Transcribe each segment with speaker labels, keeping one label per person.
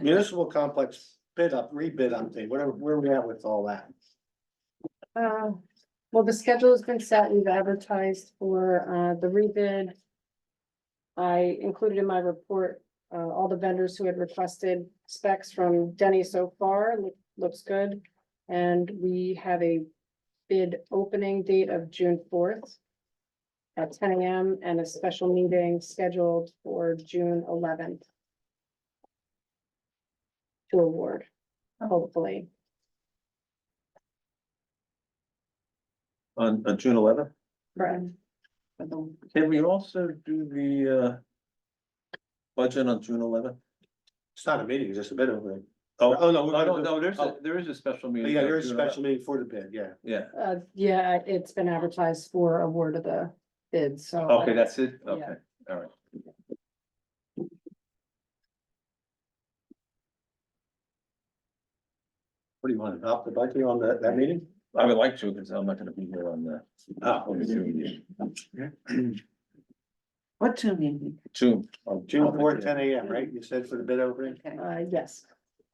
Speaker 1: Municipal complex bid up, rebid update, whatever, where we at with all that?
Speaker 2: Uh, well, the schedule's been set, we've advertised for, uh, the rebid. I included in my report, uh, all the vendors who had requested specs from Denny so far, loo- looks good. And we have a bid opening date of June fourth at ten AM and a special meeting scheduled for June eleventh to award, hopefully.
Speaker 3: on, on June eleventh.
Speaker 2: Correct.
Speaker 3: Can we also do the, uh, budget on June eleventh?
Speaker 1: It's not a meeting, it's just a bid opening.
Speaker 3: Oh,
Speaker 1: Oh, no, we're
Speaker 3: no,
Speaker 1: gonna
Speaker 3: no,
Speaker 1: do-
Speaker 3: no, there's, a
Speaker 1: oh.
Speaker 3: there is a special
Speaker 1: But
Speaker 3: meeting.
Speaker 1: Yeah,
Speaker 3: on
Speaker 1: there is a
Speaker 3: June 11th.
Speaker 1: special meeting for the bid, yeah.
Speaker 3: Yeah,
Speaker 2: Uh, yeah, it's been advertised for award of the bid, so.
Speaker 1: Oh.
Speaker 3: okay, that's it,
Speaker 2: Yeah.
Speaker 3: okay, all right.
Speaker 1: What do you want, adopt the budget on that, that meeting?
Speaker 3: I would like to, because I'm not gonna be here on the.
Speaker 1: Oh.
Speaker 3: on the Zoom meeting.
Speaker 4: What two meeting?
Speaker 3: June. on
Speaker 1: June fourth,
Speaker 3: yeah.
Speaker 1: ten AM, right? You said for the bid opening?
Speaker 4: Okay.
Speaker 2: Uh, yes,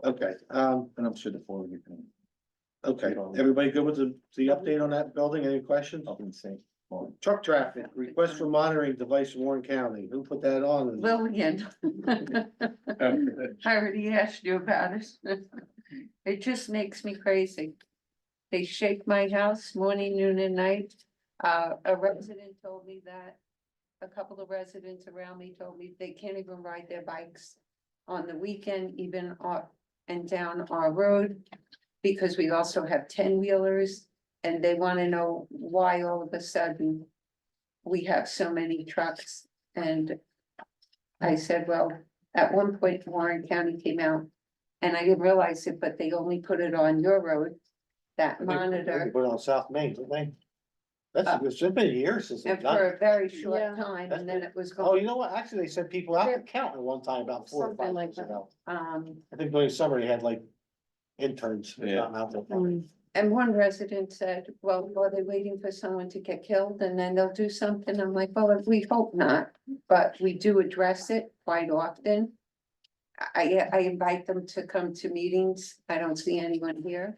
Speaker 1: Okay, um,
Speaker 3: And I'm sure the four of you can,
Speaker 1: okay. Everybody good with the, the update on that building? Any questions?
Speaker 3: I can say. more.
Speaker 1: Truck traffic, request for monitoring device in Warren County. Who put that on?
Speaker 4: Lillian,
Speaker 5: Um,
Speaker 4: I already asked you about it. It just makes me crazy. They shake my house morning, noon and night. Uh, a resident told me that. A couple of residents around me told me they can't even ride their bikes on the weekend, even up and down our road. Because we also have ten wheelers and they wanna know why all of a sudden. We have so many trucks and I said, well, at one point Warren County came out. And I didn't realize it, but they only put it on your road, that
Speaker 1: I think- I think
Speaker 4: monitor.
Speaker 1: they Put it on South Main, didn't they? That's, it's been years since
Speaker 4: And
Speaker 1: they've done.
Speaker 4: for
Speaker 1: it.
Speaker 4: a very
Speaker 2: Yeah.
Speaker 4: short time, and then it was
Speaker 1: Oh,
Speaker 4: going,
Speaker 1: you know what? Actually, they sent people out to count at one time about four or
Speaker 2: Something
Speaker 1: five
Speaker 2: like
Speaker 1: years
Speaker 2: that.
Speaker 1: ago.
Speaker 4: um,
Speaker 1: I think during summer, they had like interns. or
Speaker 3: Yeah.
Speaker 1: something out there.
Speaker 2: um,
Speaker 4: and one resident said, well, are they waiting for someone to get killed and then they'll do something? I'm like, well, we hope not, but we do address it quite often. I, I invite them to come to meetings. I don't see anyone here.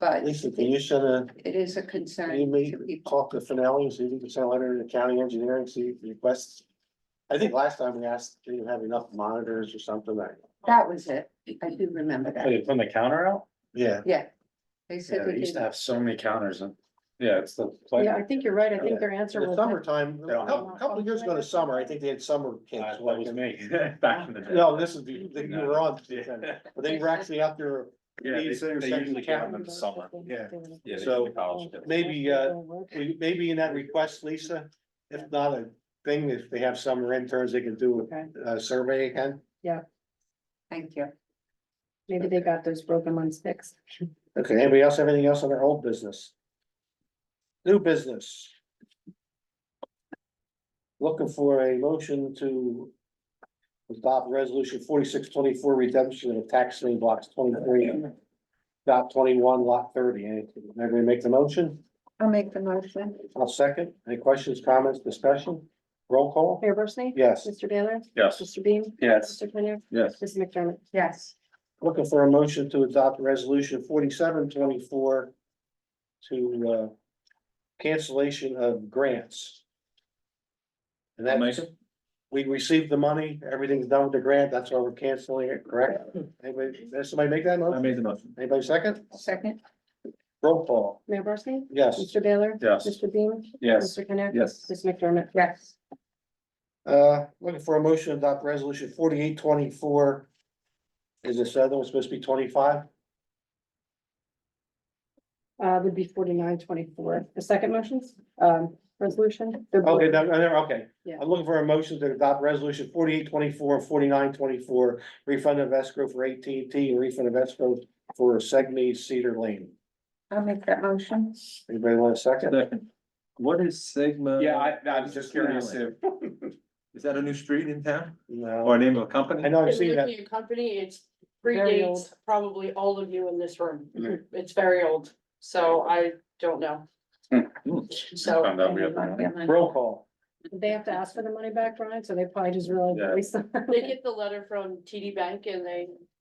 Speaker 4: But
Speaker 1: Lisa, can you send a,
Speaker 4: it is a
Speaker 1: can you
Speaker 4: concern
Speaker 1: meet,
Speaker 4: to people.
Speaker 1: talk to Finelli, and see if you can send a letter to the county engineer and see if he requests? I think last time we asked, do you have enough monitors or something like?
Speaker 4: That was it. I do remember
Speaker 3: Oh,
Speaker 4: that.
Speaker 5: Wait, from the counter out?
Speaker 1: Yeah,
Speaker 4: Yeah. They
Speaker 5: Yeah,
Speaker 4: said.
Speaker 5: they
Speaker 4: they
Speaker 5: used to
Speaker 4: didn't.
Speaker 5: have so many counters and, yeah, it's the.
Speaker 2: yeah, I think you're right, I think their answer
Speaker 1: the
Speaker 2: was.
Speaker 1: summertime, a
Speaker 5: don't
Speaker 1: couple,
Speaker 2: know.
Speaker 1: couple years ago in the summer, I think they had summer kids.
Speaker 3: Uh,
Speaker 5: That was me, back in the day.
Speaker 1: No, this is, the- the- you were on, but they were actually out there,
Speaker 5: Yeah, they-
Speaker 1: these are
Speaker 5: they
Speaker 1: second
Speaker 5: usually get
Speaker 1: count
Speaker 5: them in the summer.
Speaker 1: Yeah.
Speaker 5: Yeah, they
Speaker 1: So,
Speaker 5: do the college kids.
Speaker 1: maybe, uh, we- maybe in that request, Lisa, if not a thing, if they have summer interns, they can do
Speaker 2: Okay,
Speaker 1: a, a survey again.
Speaker 4: Thank you.
Speaker 2: maybe they got those broken ones fixed.
Speaker 1: Okay, anybody else have anything else on their old business? New business. Looking for a motion to adopt resolution forty-six twenty-four redemption of tax lien blocks twenty-three dot twenty-one lot thirty. Anybody make the motion?
Speaker 4: I'll make the motion.
Speaker 1: I'll second. Any questions, comments, discussion? Roll call?
Speaker 2: Mayor Barsney?
Speaker 1: Yes.
Speaker 2: Mr. Baylor?
Speaker 5: Yes,
Speaker 2: Mr. Beam?
Speaker 5: yes,
Speaker 2: Mr. Penney?
Speaker 3: Yes,
Speaker 2: Mrs. McDermott?
Speaker 4: Yes.
Speaker 1: Looking for a motion to adopt resolution forty-seven twenty-four to, uh, cancellation of grants. And
Speaker 3: I'll
Speaker 1: that,
Speaker 3: make it.
Speaker 1: we received the money, everything's done with the grant, that's why we're canceling it, correct? Anybody, did somebody make that
Speaker 3: I
Speaker 1: motion?
Speaker 3: made the motion.
Speaker 1: Anybody second?
Speaker 4: Second?
Speaker 1: Roll call,
Speaker 2: Mayor Barsney?
Speaker 1: yes.
Speaker 2: Mr. Baylor?
Speaker 5: yes,
Speaker 2: Mr. Beam?
Speaker 5: yes,
Speaker 2: Mr. Penney?
Speaker 3: Yes,
Speaker 2: Mrs. McDermott?
Speaker 4: Yes.
Speaker 1: Uh, looking for a motion to adopt resolution forty-eight twenty-four. Is this other one supposed to be twenty-five?
Speaker 2: Uh, would be forty-nine twenty-four. The second motion's, um, resolution. they're both-
Speaker 1: Okay, no, no, no, okay.
Speaker 2: Yeah.
Speaker 1: I'm looking for a motion to adopt resolution forty-eight twenty-four, forty-nine twenty-four, refund of escrow for AT&T and refund of escrow for Segme Cedar Lane.
Speaker 4: I'll make that motion.
Speaker 1: Anybody want a second?
Speaker 3: second. What is Sigma?
Speaker 5: yeah, I, I was just curious if,
Speaker 3: Is that a new street in town or
Speaker 1: No,
Speaker 3: a name of a company?
Speaker 1: I know I've
Speaker 6: It's
Speaker 1: seen that.
Speaker 6: really a company, it's
Speaker 2: Very old.
Speaker 6: predates probably all of you in this room.
Speaker 1: Mm-hmm.
Speaker 6: It's very old, so I don't know.
Speaker 5: Hmm.
Speaker 6: So,
Speaker 5: found out we
Speaker 4: I'll
Speaker 5: have.
Speaker 4: make that motion.
Speaker 1: Roll call.
Speaker 2: They have to ask for the money back, Brian, so they probably just realized.
Speaker 3: Yeah.
Speaker 2: they-
Speaker 6: They get the letter from TD Bank and they